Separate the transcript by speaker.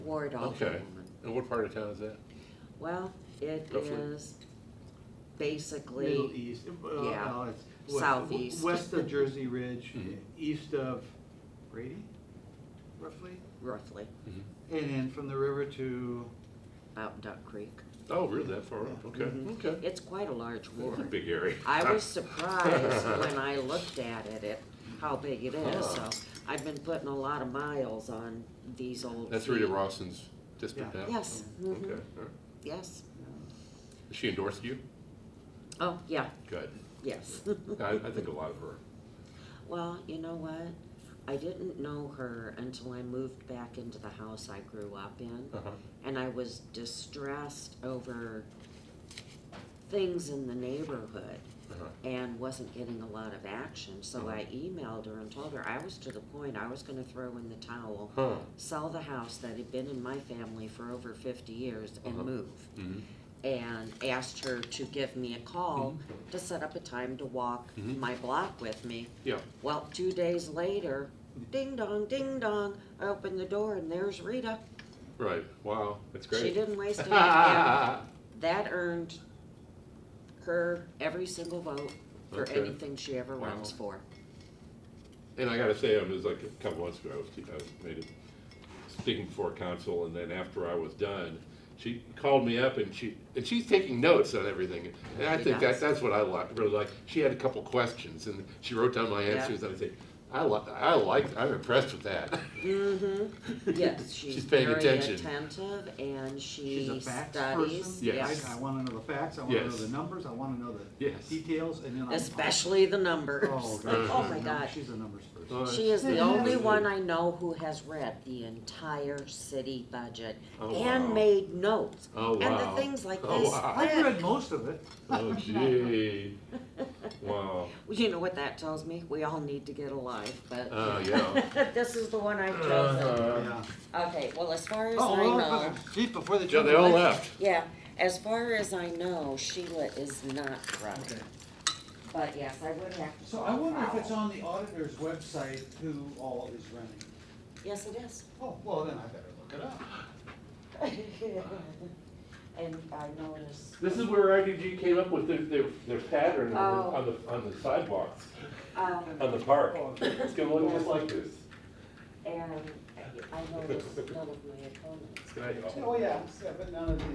Speaker 1: ward off.
Speaker 2: Okay, and what part of town is that?
Speaker 1: Well, it
Speaker 2: Roughly.
Speaker 1: is
Speaker 3: Middle
Speaker 1: basically,
Speaker 3: east, uh,
Speaker 1: yeah,
Speaker 3: no, it's west-
Speaker 1: southeast.
Speaker 3: West of Jersey Ridge,
Speaker 2: Mhm.
Speaker 3: east of Brady, roughly,
Speaker 1: roughly,
Speaker 3: and then from the river to,
Speaker 1: out Duck Creek.
Speaker 2: Oh, really, that far up, okay, okay.
Speaker 1: It's quite a large
Speaker 2: That's a
Speaker 1: ward.
Speaker 2: big area.
Speaker 1: I was surprised when I looked at it, it, how big it is, so I've been putting a lot of miles on these old
Speaker 2: That's Rita
Speaker 1: feet.
Speaker 2: Rawson's district
Speaker 3: Yeah.
Speaker 2: now?
Speaker 1: Yes, mhm,
Speaker 2: Okay, all right.
Speaker 3: uh,
Speaker 1: yes.
Speaker 2: Has she endorsed you?
Speaker 1: Oh, yeah,
Speaker 2: Good.
Speaker 1: yes.
Speaker 2: I, I think a lot of her.
Speaker 1: Well, you know what? I didn't know her until I moved back into the house I grew up in.
Speaker 2: Uh-huh.
Speaker 1: And I was distressed over things in the neighborhood
Speaker 2: Uh-huh.
Speaker 1: and wasn't getting a lot of action.
Speaker 2: Mm-hmm.
Speaker 1: So I emailed her and told her I was to the point I was going to throw in the towel,
Speaker 2: Huh.
Speaker 1: sell the house that had been in my family for over 50 years, and
Speaker 2: Uh-huh.
Speaker 1: move.
Speaker 2: Mhm.
Speaker 1: And asked her to give me a call
Speaker 2: Mm-hmm.
Speaker 1: to set up a time to walk
Speaker 2: Mhm.
Speaker 1: my block with me.
Speaker 2: Yeah,
Speaker 1: Well, two days later, ding dong, ding dong, I opened the door and there's Rita.
Speaker 2: right, wow, that's great.
Speaker 1: She didn't waste any time. That earned her every single vote for
Speaker 2: Okay.
Speaker 1: anything she ever
Speaker 2: Wow.
Speaker 1: runs for.
Speaker 2: And I gotta say, I was like, a couple months ago, I was, I was made it speaking before council, and then after I was done, she called me up and she, and she's taking notes on everything. And I
Speaker 1: She
Speaker 2: think that,
Speaker 1: does.
Speaker 2: that's what I like, really like. She had a couple questions, and she wrote down my answers, and I think, I li- I like, I'm impressed with that.
Speaker 1: Mm-hmm, yes,
Speaker 2: She's
Speaker 1: she's
Speaker 2: paying
Speaker 1: very
Speaker 2: attention.
Speaker 1: attentive and
Speaker 3: she's
Speaker 1: she
Speaker 3: a facts person.
Speaker 1: studies,
Speaker 2: Yes.
Speaker 1: yes.
Speaker 3: I wanna know the facts, I wanna know
Speaker 2: Yes.
Speaker 3: the numbers, I wanna know the
Speaker 2: Yes.
Speaker 3: details, and then I'm.
Speaker 1: Especially the
Speaker 3: Oh,
Speaker 1: numbers.
Speaker 3: gosh,
Speaker 2: Uh-huh.
Speaker 1: Oh, my
Speaker 3: she's a num-
Speaker 1: God.
Speaker 3: She's a numbers
Speaker 2: Uh,
Speaker 3: person.
Speaker 1: She is the
Speaker 2: Yeah.
Speaker 1: only one I know who has read the entire city budget
Speaker 2: Oh, wow.
Speaker 1: and made notes.
Speaker 2: Oh,
Speaker 1: And the
Speaker 2: wow.
Speaker 1: things like
Speaker 2: Oh,
Speaker 1: this.
Speaker 2: wow.
Speaker 3: I've
Speaker 1: thick.
Speaker 3: read most of it.
Speaker 2: Oh, gee, wow.
Speaker 1: Well, You know what that tells me? We all need to get alive, but.
Speaker 2: Uh, yeah. Uh-huh.
Speaker 1: This is the one I've chosen.
Speaker 3: Yeah.
Speaker 1: Okay, well, as far as
Speaker 3: Oh,
Speaker 1: I
Speaker 3: well,
Speaker 1: know,
Speaker 3: but- Geez, before they.
Speaker 2: Yeah,
Speaker 3: jump
Speaker 2: they all
Speaker 3: away.
Speaker 2: left.
Speaker 1: yeah, as far as I know, Sheila is not running.
Speaker 3: Okay.
Speaker 1: But yes, I would have to.
Speaker 4: So I wonder if it's on the auditor's website who all is running.
Speaker 1: Yes, it is.
Speaker 4: Oh, well, then I better look it up.
Speaker 1: And I noticed,
Speaker 2: This is where IDG came up with their, their, their pattern
Speaker 1: on the-
Speaker 2: on the, on the sidewalks,
Speaker 1: um,
Speaker 2: on the park.
Speaker 4: Oh,
Speaker 2: It's gonna look just like this.
Speaker 1: and I noticed none of my opponents.
Speaker 2: Right.
Speaker 4: Oh, yeah, yeah, but none of the